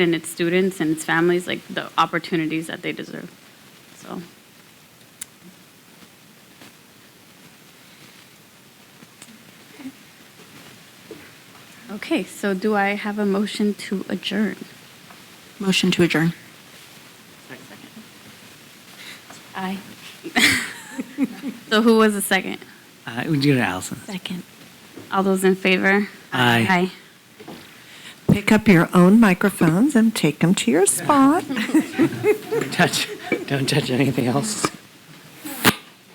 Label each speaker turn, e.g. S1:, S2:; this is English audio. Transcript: S1: and its students and its families, like the opportunities that they deserve. So, okay, so do I have a motion to adjourn?
S2: Motion to adjourn.
S1: Aye. So who was the second?
S3: Uh, we do it, Allison.
S2: Second.
S1: All those in favor?
S3: Aye.
S1: Aye.
S4: Pick up your own microphones and take them to your spot.
S3: Don't touch, don't touch anything else.